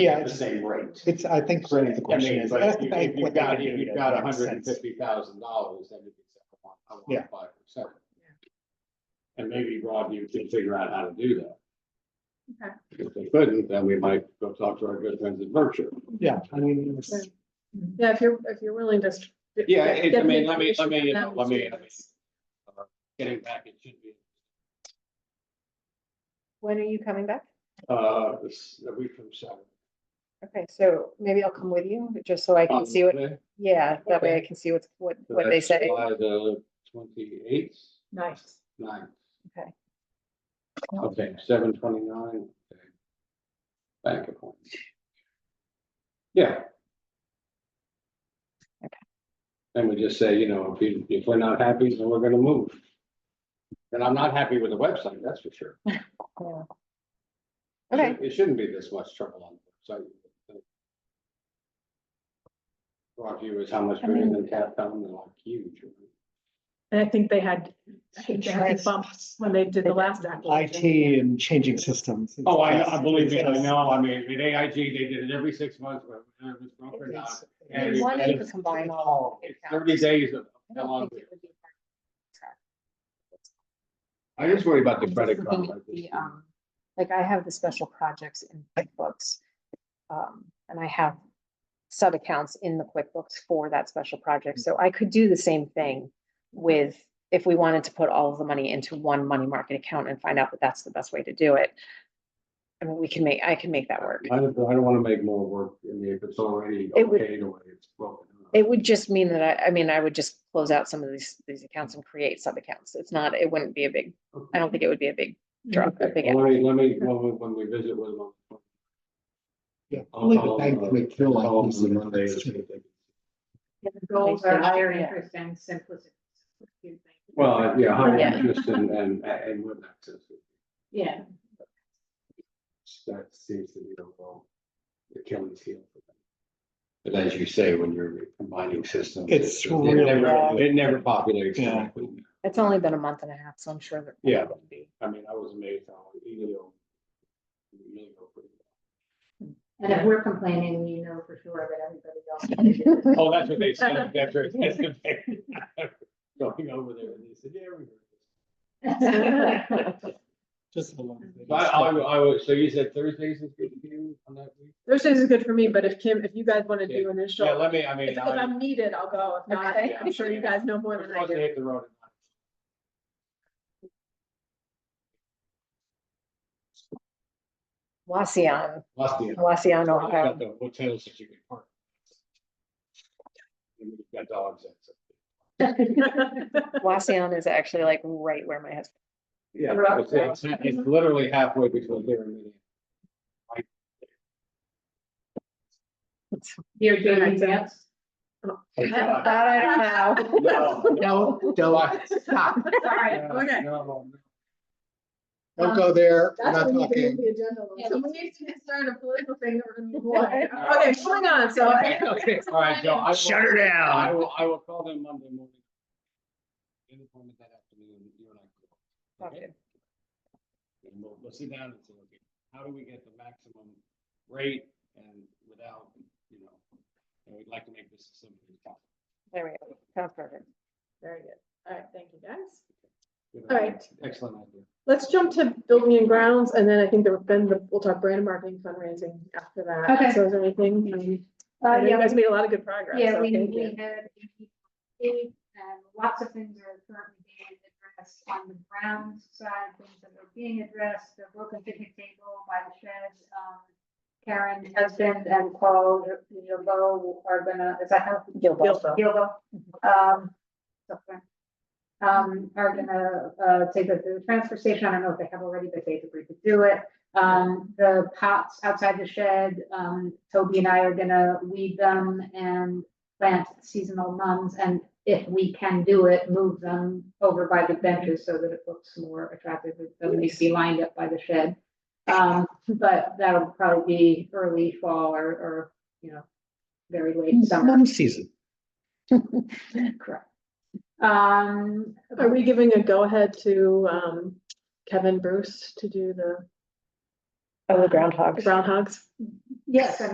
Yeah, the it's, same rate. it's, I think. So, I mean, it's like, That's if you- like if you've what they got, do if that you've got makes hundred and sense. fifty thousand dollars, then you can set a one, a Yeah. one five percent. And maybe Rob, you can figure out how to do that. Okay. If they couldn't, then we might go talk to our good friends at Berkshire. Yeah, I mean, it's- Okay. Yeah, if you're, if you're willing to. st- Yeah, it- I get mean, the let me- let me- information, that let would me- be nice. Getting back, it should be, When are you coming back? uh, this- a week from seven. Okay, so maybe I'll come with you, just so I can see what, Monday, yeah, that way I can see what's, what, Um, so what they that's say. July the twenty-eighth, Nice. nine, Okay. okay, seven twenty-nine. Bank appointment. Yeah. Okay. And we just say, you know, if you, if we're not happy, then we're gonna move. And I'm not happy with the website, that's for sure. Yeah. Okay, It shouldn't be this much trouble on, so. Our view is how much I bigger mean- than Cat Fountain, they're like huge. And I think they had, I think they had Trans- a bump when they did the last acquisition. IT and changing systems. Oh, I, I believe me, it. I know, I mean, with AIG, they did it every six months, whether it was broke or not. If you wanted, you could combine all. of It's the Thirty accounts. days of. I don't think it would be hard. I just worry about I'm just looking at the, um, Like I have the special projects in QuickBooks. Um, and I have sub-accounts in the QuickBooks for that special project. So I could do the same thing with, if we wanted to put all of the money into one money market account and find out that that's the best way to do it. I mean, we can make, I can make that work. I don't, I don't wanna make more work, I mean, if it's already It would- okay, the way it's broken. up. It would just mean that I, I mean, I would just close out some of these, these accounts and create sub-accounts. It's not, it wouldn't be a big, I don't think it would be a big drop. a big Okay, well, Let me, let me, when we, when we visit with them. I'll- Yeah, I'll- only the I'll, bank uh, would feel like I'll- losing on Monday this. is gonna be- The goals are higher Yeah. interest and simplicity. Well, yeah, high Yeah. interest and, and, and with access, Yeah, that seems to be the role, the killing field. for them. But as you say, when you're combining systems. It's just- it really never- bad. It never populates. Yeah. correctly. It's only been a month and a half, so I'm sure that. Yeah. I mean, I was amazed how Elio. Elio pretty and if we're complaining, you know for sure that everybody else. well. Oh, that's what they said, that's what that's what they Going over there and they said, yeah, we. heard this." Just a little bit. But uh, I, I, I, was- so you said Thursdays is good for you on that week? Thursdays is good for me, but if Kim, if you guys want to do an Yeah, initial, let me, I mean. if if I- I'm needed, I'll go. If not, Okay. I'm sure you guys know more We're than I supposed to do. hit the road. at nine. Waseon, Lusty. Waseon, You've got Ohio. the hotels that you can park. And you've got dogs that- Waseon is actually like right where my husband. Yeah, Rock it's, it's- it's literally halfway between here and there. Here, do you dance? I don't know. No, No, don't, stop. Sorry. no, Okay. no, no. Don't go there. We're That's not when you can move talking. the agenda along. Yeah, So we we need to get started a political thing that we're gonna move Alright. on. Okay, moving on, so. Okay, okay, all right, Joe. I will- Shut her I down. will, I will call them Monday morning. Any appointment that afternoon, you and I. go. Okay. And we'll, we'll sit down and say, okay, how do we get the maximum rate and without, you know, and we'd like to make this as simple as possible. There we go. Sounds perfect. Very good. All right, thank you, guys. Good All idea. right. Excellent idea. Let's jump to building and grounds, and then I think there have been, the- we'll talk brand and marketing fundraising after that. Okay. So is there anything? Uh, I know you yeah, guys made a lot of good progress. yeah, so we, thank we you. had, we, um, lots of things are currently being addressed on the ground side, things that are being addressed, the broken picnic table by the shed, um, Karen, husband and Paul, you know, Bo are gonna, is that how? Gilbo. Gilbo. Gilbo, um, okay. Um, are gonna, uh, take it to the transfer station, I don't know if they have already, but they agreed to do it. Um, the pots outside the shed, um, Toby and I are gonna weed them and plant seasonal mums, and if we can do it, move them over by the benches so that it looks more attractive, it doesn't need to be lined up by the shed. Um, but that'll probably be early fall or, or, you know, very late summer. Mom season. Correct. Um, Are we giving a go-ahead to um Kevin Bruce to do the Oh, the groundhogs. groundhogs? Yes, I